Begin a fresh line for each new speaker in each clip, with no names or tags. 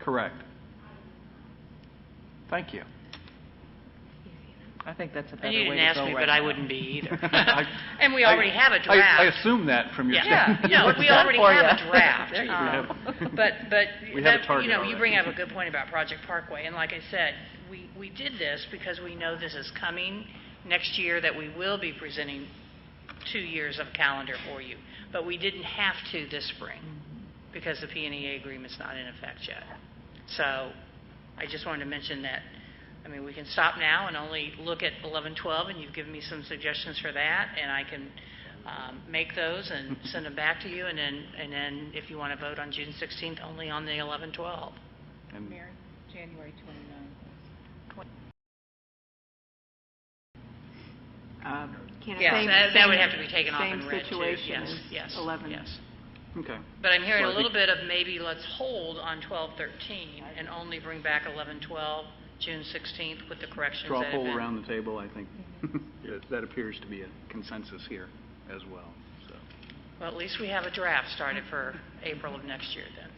Correct. Thank you.
I think that's a better
And
way to
you
go right
didn't ask me, but I wouldn't be either. And we
I-
already have a
I- I
draft.
assume that from your
Yeah,
statement.
no, we already
for
have
ya.
a draft.
There you
um,
go.
But, but,
We have a
that- you
target
know, you bring up a
already.
good point about Project Parkway, and like I said, we, we did this because we know this is coming next year, that we will be presenting two years of calendar for you, but we didn't have to this spring, because the PNEA agreement's not in effect yet. So, I just wanted to mention that, I mean, we can stop now and only look at 11, 12, and you've given me some suggestions for that, and I can um, make those and send them back to you, and then, and then if you want to vote on June 16th, only on the 11, 12.
And
January 29th.
Can it-
Yeah,
same-
that- that would
same-
have to be taken off and read, too.
Same situation
Yes,
as
yes,
11.
yes.
Okay.
But I'm hearing
So
a
I
little
think-
bit of maybe let's hold on 12, 13, and only bring back 11, 12, June 16th with the corrections
Straw
that have
poll
been-
around the table, I think. That- That appears to be a consensus here as well, so.
Well, at least we have a draft started for April of next year, then.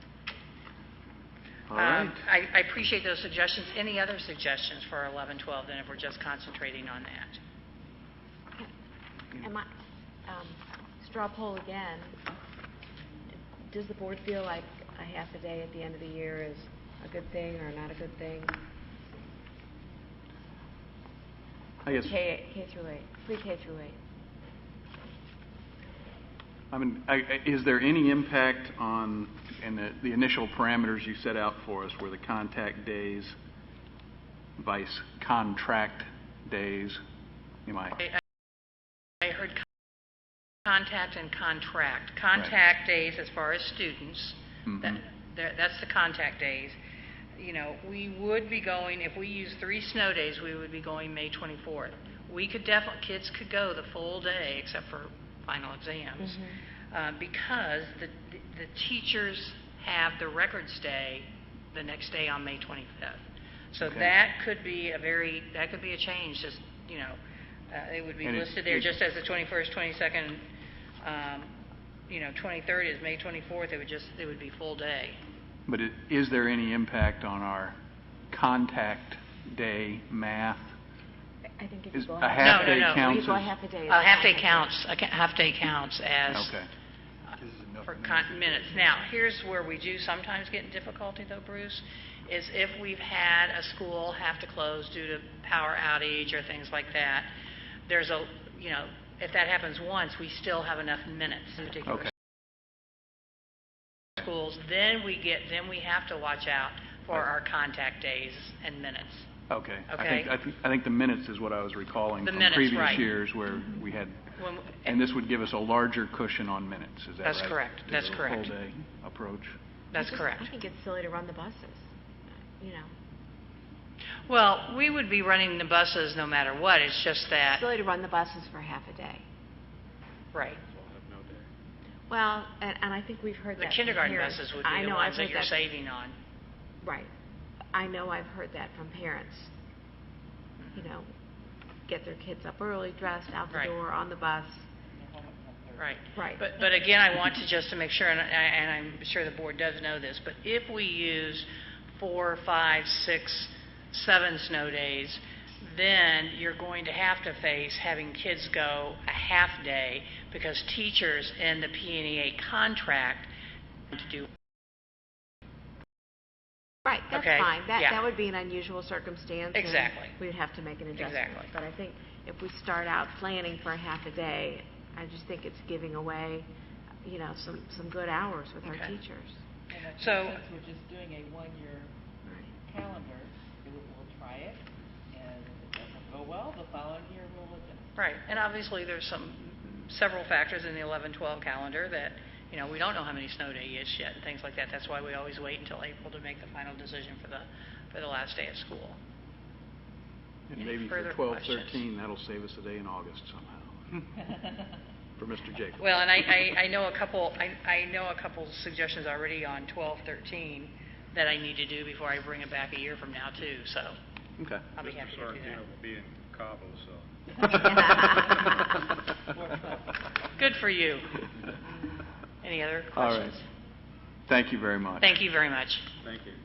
All
Um,
right.
I I appreciate those suggestions. Any other suggestions for 11, 12, then, if we're just concentrating on that?
Am I, um, straw poll again, does the board feel like a half a day at the end of the year is a good thing or not a good thing?
I guess,
K, K through eight, pre-K through eight.
I mean, I- I- is there any impact on, and the- the initial parameters you set out for us were the contact days, vice contract days? Am I?
I- I I heard con- contact and contract. Contact days as far as students, that-
Mhm.
that- that's the contact days. You know, we would be going, if we use three snow days, we would be going May 24th. We could definitely, kids could go the full day except for final exams, uh, because the the teachers have the records day the next day on May 25th. So
Okay.
that could be a very, that could be a change, just, you know, uh, it would be
And it-
listed there
it-
just as the 21st, 22nd, um, you know, 23rd is May 24th, it would just, it would be full day.
But i- is there any impact on our contact day math?
I think if you
Is
go.
a
half-
No, no,
half-day
no. We
counts
You go
as-
half a day.
A half-day Uh, counts, a ca- half-day counts as,
Okay.
for con- minutes. Now, here's where we do sometimes get in difficulty though, Bruce, is if we've had a school have to close due to power outage or things like that, there's a, you know, if that happens once, we still have enough minutes in particular
Okay.
schools, then we get, then we have to watch out for
Right.
our contact days and minutes.
Okay. I think-
Okay.
I think, I think the minutes is what I was recalling
The
from
minutes,
previous
right.
years where we had,
When-
and this would give us a larger cushion on minutes, is that right?
That's correct.
To
That's
the
correct.
Full-day approach.
That's correct.
I think it's silly to run the buses, you know.
Well, we would be running the buses no matter what, it's just that,
Silly to run the buses for half a day.
right.
Well, and, and I think we've heard
The
that. from
kindergarten
parents.
buses would
I
be the
know I've
ones that
heard
you're saving on.
Right. I know I've heard that from parents. You know, get their kids up early, dressed, out the
Right.
door, on the bus.
Right.
Right.
But, but again, I want to, just to make sure, and I- and I'm sure the board does know this, but if we use four, five, six, seven snow days, then you're going to have to face having kids go a half day because teachers in the PNEA contract to do,
Right, that's
Okay,
fine. That,
yeah.
that would be an unusual circumstance. and
Exactly.
We'd have to make an adjustment.
Exactly.
But I think if we start out planning for a half a day, I just think it's giving away, you know, some, some good hours with our
Okay.
teachers.
And I think
So-
Since we're just doing a one-year
Right.
calendar, it- we'll try it, and if it doesn't go well, the following year we'll look at it.
right, and obviously there's some, several factors in the 11-12 calendar that, you know, we don't know how many snow day is yet and things like that. That's why we always wait until April to make the final decision for the, for the last day of school.
And
Any
maybe for
further
12,
questions?
13, that'll save us a day in August somehow, for Mr. Jacob.
Well, and I, I, I know a couple, I, I know a couple suggestions already on 12, 13 that I need to do before I bring it back a year from now too, so
Okay.
I'll be happy to do
Mr. Sorrentino will be in Cabo, so.
that. Good for you. Any other
All right.
questions?
Thank you very much.
Thank you very much.
Thank you.